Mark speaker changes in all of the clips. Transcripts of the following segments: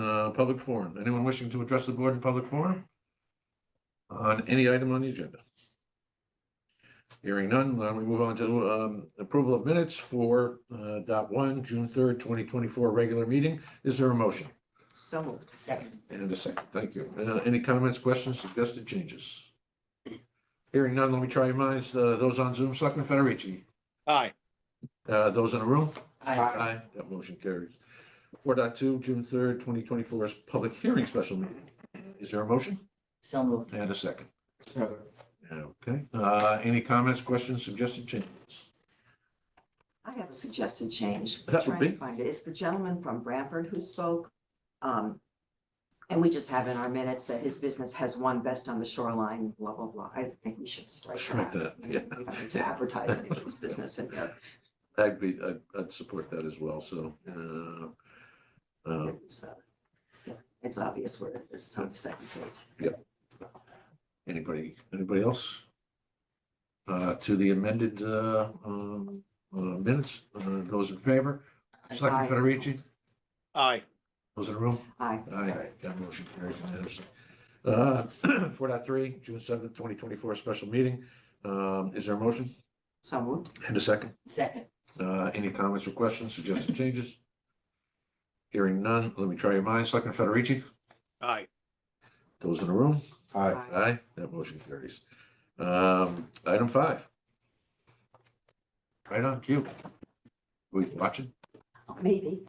Speaker 1: Uh, public forum. Anyone wishing to address the board in public forum? On any item on the agenda? Hearing none, why don't we move on to um approval of minutes for uh dot one, June third, twenty twenty-four, regular meeting. Is there a motion?
Speaker 2: So moved. Second.
Speaker 1: And a second, thank you. Uh, any comments, questions, suggested changes? Hearing none, let me try your minds. Uh, those on Zoom, Selectman Federici,
Speaker 3: Aye,
Speaker 1: uh, those in the room?
Speaker 2: Aye.
Speaker 1: Aye, that motion carries. Four dot two, June third, twenty twenty-four is public hearing special meeting. Is there a motion?
Speaker 2: So moved.
Speaker 1: And a second. Okay, uh, any comments, questions, suggested changes?
Speaker 4: I have a suggested change.
Speaker 1: That would
Speaker 4: Trying to
Speaker 1: be-
Speaker 4: Find it. It's the gentleman from Branford who spoke. Um, and we just have in our minutes that his business has won best on the shoreline, blah, blah, blah. I think we should strike
Speaker 1: Strike
Speaker 4: that.
Speaker 1: that, yeah.
Speaker 4: We don't need To advertise any of his business in there.
Speaker 1: I'd be, I'd, I'd support that as well, so, uh, uh,
Speaker 4: So, yeah, It's obvious where it is. It's on the second page.
Speaker 1: anybody, anybody else? Uh, to the amended, uh, um, uh, minutes, uh, those in favor? Selectman
Speaker 4: Aye.
Speaker 1: Federici,
Speaker 3: aye,
Speaker 1: those in the room?
Speaker 4: Aye.
Speaker 1: Aye, that motion carries unanimously. Uh, four dot three, June seventh, twenty twenty-four, special meeting. Um, is there a motion
Speaker 4: So moved.
Speaker 1: and a second?
Speaker 2: Second.
Speaker 1: Uh, any comments or questions, suggested changes? Hearing none, let me try your minds. Selectman Federici,
Speaker 3: aye,
Speaker 1: those in the room?
Speaker 4: Aye.
Speaker 1: Aye, that motion carries. Um, item five. Right on cue. We watching?
Speaker 4: Maybe.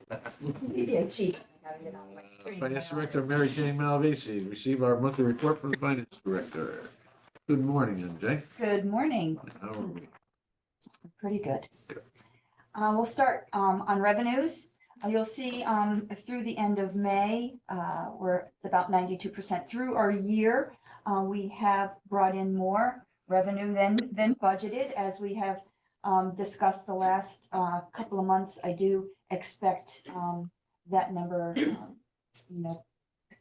Speaker 4: Maybe I cheat.
Speaker 1: Uh, Finance Director Mary Jane Malvisi, receive our monthly report from the Finance Director. Good morning, MJ.
Speaker 5: Good morning.
Speaker 1: How are we?
Speaker 5: Pretty good. Uh, we'll start, um, on revenues. Uh, You'll see, um, through the end of May, uh, we're about ninety-two percent through our year. Uh, we have brought in more revenue than, than budgeted, as we have, um, discussed the last, uh, couple of months. I do expect, um, that number, um, you know,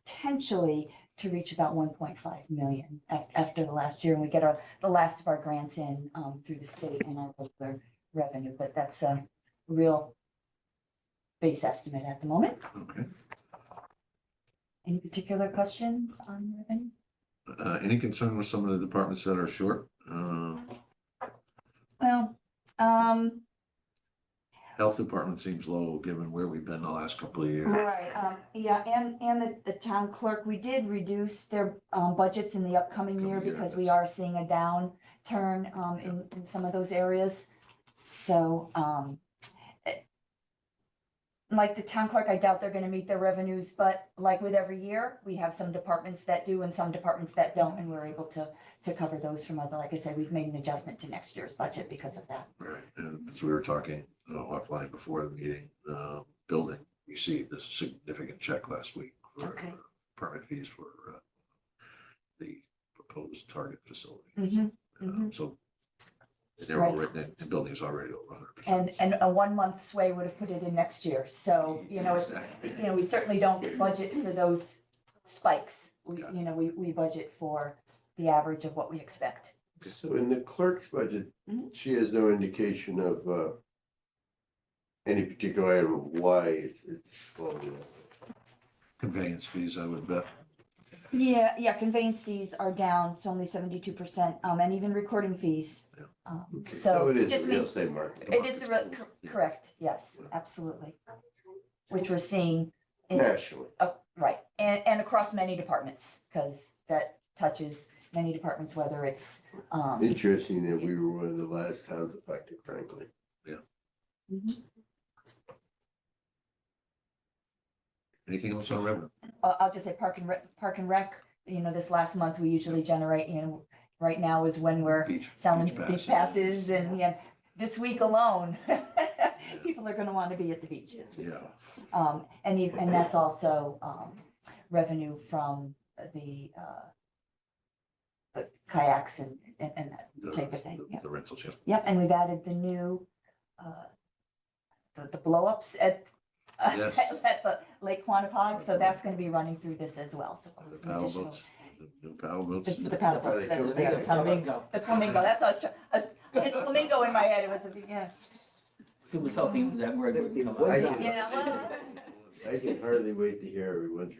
Speaker 5: potentially to reach about one point five million af- after the last year, and we get our the last of our grants in um through the state and our local revenue, but that's a real base estimate at the moment.
Speaker 1: Okay,
Speaker 5: Any particular questions on revenue?
Speaker 1: uh, any concern with some of the departments that are short? Uh,
Speaker 5: Well, um,
Speaker 1: health department seems low, given where we've been the last couple of years.
Speaker 5: right, um, yeah, and and the the town clerk, we did reduce their um budgets in the upcoming year
Speaker 1: Upcoming year,
Speaker 5: because we
Speaker 1: that's-
Speaker 5: are seeing a downturn um in in some of those areas. So um eh, like the town clerk, I doubt they're gonna meet their revenues, but like with every year, we have some departments that do and some departments that don't, and we're able to to cover those from other, like I said, we've made an adjustment to next year's budget because of that.
Speaker 1: Right, and as we were talking uh, offline before the meeting, uh, building received a significant check last week for uh,
Speaker 5: Okay.
Speaker 1: permit fees for uh, the proposed target facility.
Speaker 5: Mhm,
Speaker 1: Um,
Speaker 5: mhm.
Speaker 1: So they're all written, the building is already over hundred percent.
Speaker 5: And and a one-month sway would have put it in next year, so, Oh, you know, it's you know, we certainly don't budget for those spikes. We,
Speaker 1: Got
Speaker 5: you know, we, we budget for the average of what we expect.
Speaker 6: So in the clerk's budget,
Speaker 5: Mhm.
Speaker 6: she has no indication of uh. Any particular item of why it's it's. falling out.
Speaker 1: Conveyance fees, I would bet.
Speaker 5: Yeah, yeah, conveyance fees are down, it's only seventy-two percent, um, and even recording fees.
Speaker 1: Yeah.
Speaker 5: Um,
Speaker 6: Okay,
Speaker 5: So
Speaker 6: It is
Speaker 5: just
Speaker 6: the real
Speaker 5: me,
Speaker 6: estate market.
Speaker 5: it is the, re- cor- correct, yes, absolutely. Which we're seeing, in-
Speaker 6: Nationally,
Speaker 5: uh, right, and, and across many departments, because that touches many departments, whether it's, um,
Speaker 6: interesting that we were one of the last towns affected, frankly.
Speaker 5: mhm.
Speaker 1: Anything else on revenue?
Speaker 5: I'll, I'll just say park and rec, park and rec, you know, this last month, we usually generate, you know, right now is when we're
Speaker 1: Beach-
Speaker 5: selling
Speaker 1: beach
Speaker 5: beach
Speaker 1: pass.
Speaker 5: passes and, yeah, this week alone, people are gonna wanna be at the beach this week.
Speaker 1: Yeah.
Speaker 5: Um, and, you- and that's also, um, revenue from the, uh, the kayaks and, and, and, that.
Speaker 1: the-
Speaker 5: Type of thing,
Speaker 1: the-
Speaker 5: yeah.
Speaker 1: The rental, yeah.
Speaker 5: yep, and we've added the new, uh, the, the blowups at,
Speaker 1: Yes.
Speaker 5: at the Lake Quantapug, so that's gonna be running through this as well, so.
Speaker 1: The
Speaker 5: some
Speaker 1: paddle
Speaker 5: additional-
Speaker 1: boats, the- the paddle boats.
Speaker 5: The the paddle boats, that's what they are.
Speaker 2: Flamingo.
Speaker 5: The flamingo, that's what I was trying, I was- I had flamingo in my head, it was, a yeah.
Speaker 2: Who was hoping that word would come
Speaker 6: I
Speaker 2: up.
Speaker 6: did.
Speaker 5: Yeah, well-
Speaker 6: I can hardly wait to hear everyone's